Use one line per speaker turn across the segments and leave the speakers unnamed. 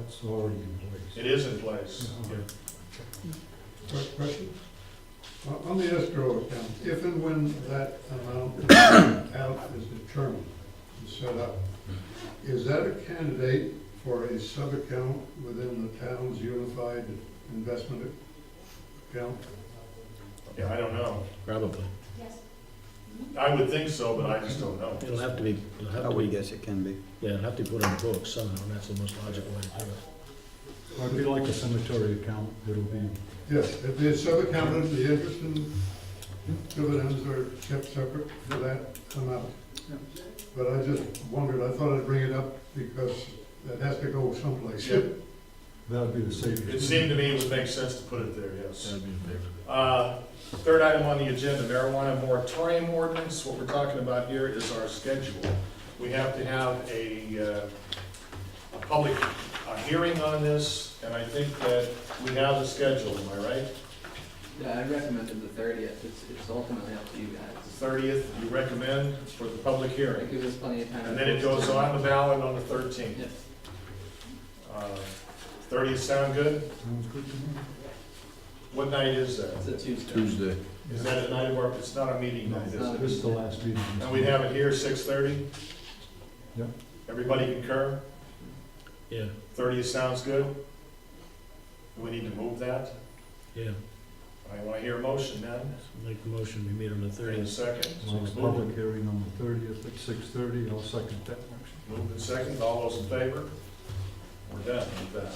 that's already in
It is in place.
place.
Yeah.
Quick Question? On- On the escrow account, if and when that amount out is determined and set up, is that a candidate for a sub-account within the town's unified investment account?
Yeah, I don't know.
Probably.
I would think so, but I just don't know.
It'll have to be, it'll
I
have to
would
be,
guess it can be.
yeah, it'll have to be put on the books somehow, and that's the most logical way to do it.
It'd be like a cemetery account, it'll be,
Yes, if the sub-account, the interest and dividends are kept separate for that amount. But I just wondered, I thought I'd bring it up because that has to go someplace.
Yeah.
that'd be the safest.
It seemed to me it would make sense to put it there, yes.
That'd be a big-
Uh, Third item on the agenda, marijuana moratorium ordinance. What we're talking about here is our schedule. We have to have a, uh, a public uh, hearing on this, and I think that we have the schedule, am I right?
Yeah, I recommended the thirtieth, it's, it's ultimately up to you
The
guys.
thirtieth, you recommend for the public hearing,
It gives us plenty of time.
and then it goes on the ballot on the thirteenth. Uh,
Yes,
Thirtieth sound good?
Sounds good to me.
What night is that?
it's a Tuesday.
Tuesday.
Is that a night of our, it's not a meeting night, is
No,
it?
This is the last meeting.
And we have it here, six thirty?
Yep.
Everybody concur?
Yeah,
Thirty sounds good? Do we need to move that?
yeah,
I want to hear a motion then.
make the motion, we meet on the
Thirty
thirtieth.
second.
Well, it's Public hearing on the thirtieth at six thirty, I'll second that motion.
Moved and second, all those in favor? We're done with that.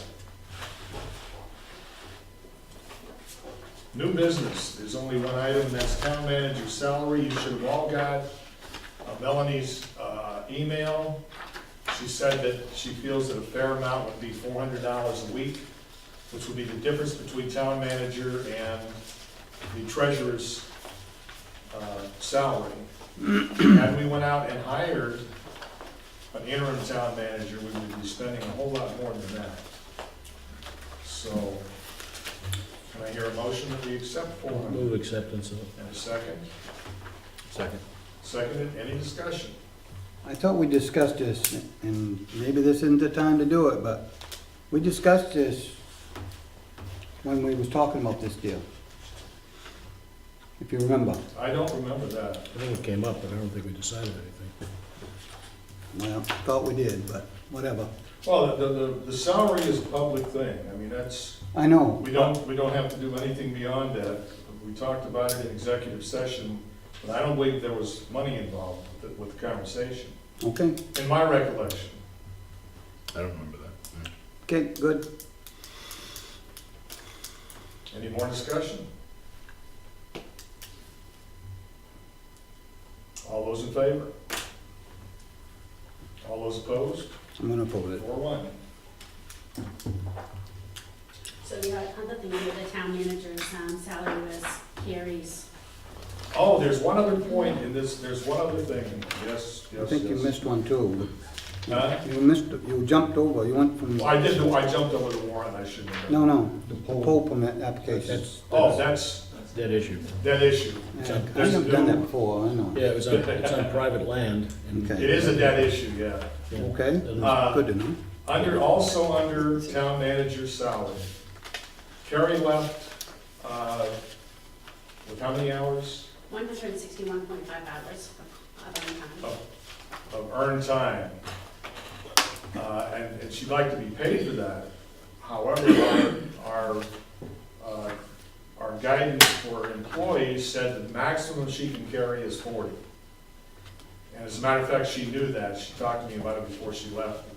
New business, there's only one item, that's town manager's salary. You should have all got uh, Melanie's uh, email. She said that she feels that a fair amount would be four hundred dollars a week, which would be the difference between town manager and the treasurer's uh, salary. Had we went out and hired an interim town manager, we would be spending a whole lot more than that. So, can I hear a motion that we accept four hundred?
Move acceptance of,
And a second?
Second.
Seconded, any discussion?
I thought we discussed this, and maybe this isn't the time to do it, but we discussed this when we was talking about this deal. If you remember,
I don't remember that.
I think it came up, but I don't think we decided anything.
well, thought we did, but whatever.
Well, the, the, the salary is a public thing, I mean, that's,
I know,
we don't, we don't have to do anything beyond that. We talked about it in executive session, but I don't believe there was money involved with, the- with the conversation,
okay,
in my recollection.
I don't remember that.
okay, good.
Any more discussion? All those in favor? All those opposed?
I'm gonna oppose it.
Four one.
So the other thing, with the town manager's um, salary was Carrie's.
Oh, there's one other point in this, there's one other thing. Yes, yes,
I think you
yes.
missed one too.
Huh?
You missed, you jumped over, you went from,
Well, I did, I jumped over the warrant, I shouldn't have.
no, no,
The
the
poll,
pole permit application.
That's,
Oh, that's,
that issue.
that issue.
Yeah, I
There's a
have done
new-
that before, I know.
Yeah, it was on, it's on private land. and-
Okay.
It is a debt issue, yeah.
Yeah.
Okay,
Uh,
good to know.
Under, also under town manager's salary. Carrie left, uh, with how many hours
One hundred and sixty-one point five hours of of
Oh.
income.
of earned time? Uh, and, and she'd like to be paid for that. However, our, our, uh, our guidance for employees said the maximum she can carry is forty. And as a matter of fact, she knew that. She talked to me about it before she left,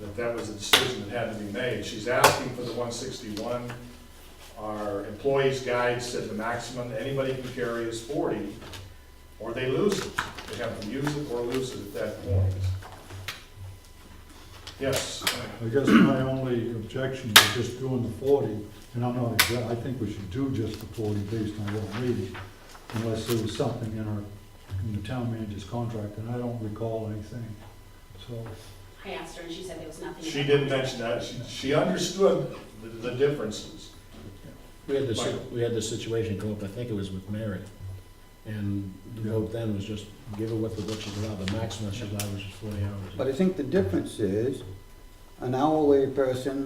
that that was a decision that had to be made. She's asking for the one sixty-one. Our employees' guide said the maximum that anybody can carry is forty, or they lose it. They have to use it or lose it at that point. Yes,
I guess my only objection is just doing the forty, and I'm not, exact- I think we should do just the forty based on what I'm reading, unless there was something in our, in the town manager's contract, and I don't recall anything, so.
I asked her and she said there was nothing. in
she
the
did
contract.
mention that. She, she understood the, the differences.
We had this, we had this situation go up, I think it was with Mary. And the vote then was just give her what the, what she's allowed, the maximum she's allowed was just forty hours.
But I think the difference is, an hourly person